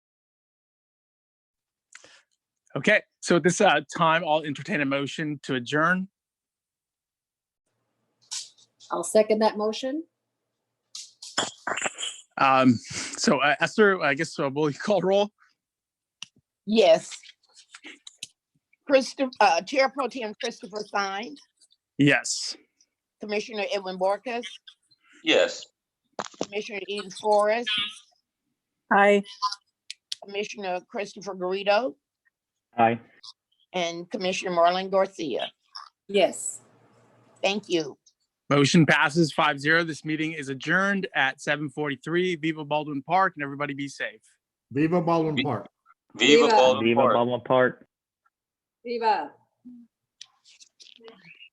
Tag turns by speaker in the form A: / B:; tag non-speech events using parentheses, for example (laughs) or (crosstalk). A: Okay, so at this uh, time, I'll entertain a motion to adjourn.
B: I'll second that motion.
A: Um, so uh, Esther, I guess uh, will you (laughs) call roll?
C: Yes. Christopher, uh, Chair Pro Tem Christopher Stein,
A: Yes.
C: Commissioner Edwin Borkus,
D: Yes.
C: Commissioner Eden Forrest,
E: Aye.
C: Commissioner Christopher Garrido,
F: Aye.
C: and Commissioner Marlon Garcia.
B: Yes.
C: Thank you.
A: Motion passes 5-0. This meeting is adjourned at 7:43 Viva Baldwin Park, and everybody be safe.
G: Viva Baldwin Park.
D: Viva
B: Viva.
D: Baldwin
F: Viva
D: Park.
F: Baldwin Park.
B: Viva.